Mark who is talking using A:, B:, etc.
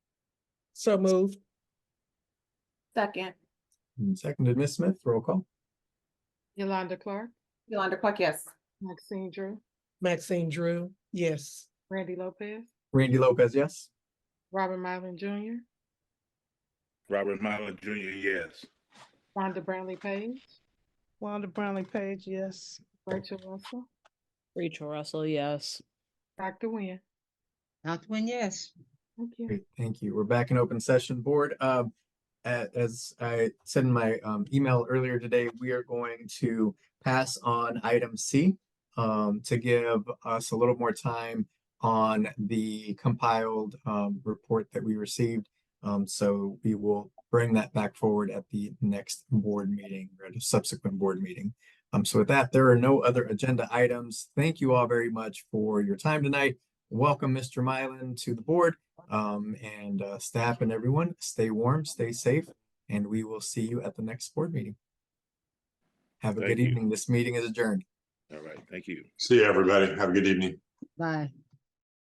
A: So moved.
B: Second,
C: And Seconded, Ms. Smith, roll call.
D: Yolanda Clark,
B: Yolanda Clark, yes.
D: Maxine Drew,
A: Maxine Drew, yes.
D: Randy Lopez,
C: Randy Lopez, yes.
D: Robert Mylan Jr.,
E: Robert Mylan Jr., yes.
D: Rhonda Brownlee Page,
A: Wanda Brownlee Page, yes.
D: Rachel Russell,
F: Rachel Russell, yes.
D: Dr. Nguyen.
G: Dr. Nguyen, yes.
D: Thank you.
C: Great, thank you. We're back in open session, board. Um, a- as I said in my um email earlier today, we are going to pass on item C um to give us a little more time on the compiled um report that we received. Um, so we will bring that back forward at the next board meeting or at a subsequent board meeting. Um, so with that, there are no other agenda items. Thank you all very much for your time tonight. Welcome, Mr. Mylan, to the board. Um, and uh, staff and everyone, stay warm, stay safe, and we will see you at the next board meeting. Have a
E: Thank
C: good
E: you.
C: evening. This meeting is adjourned.
E: All right, thank you.
H: See you, everybody. Have a good evening.
G: Bye.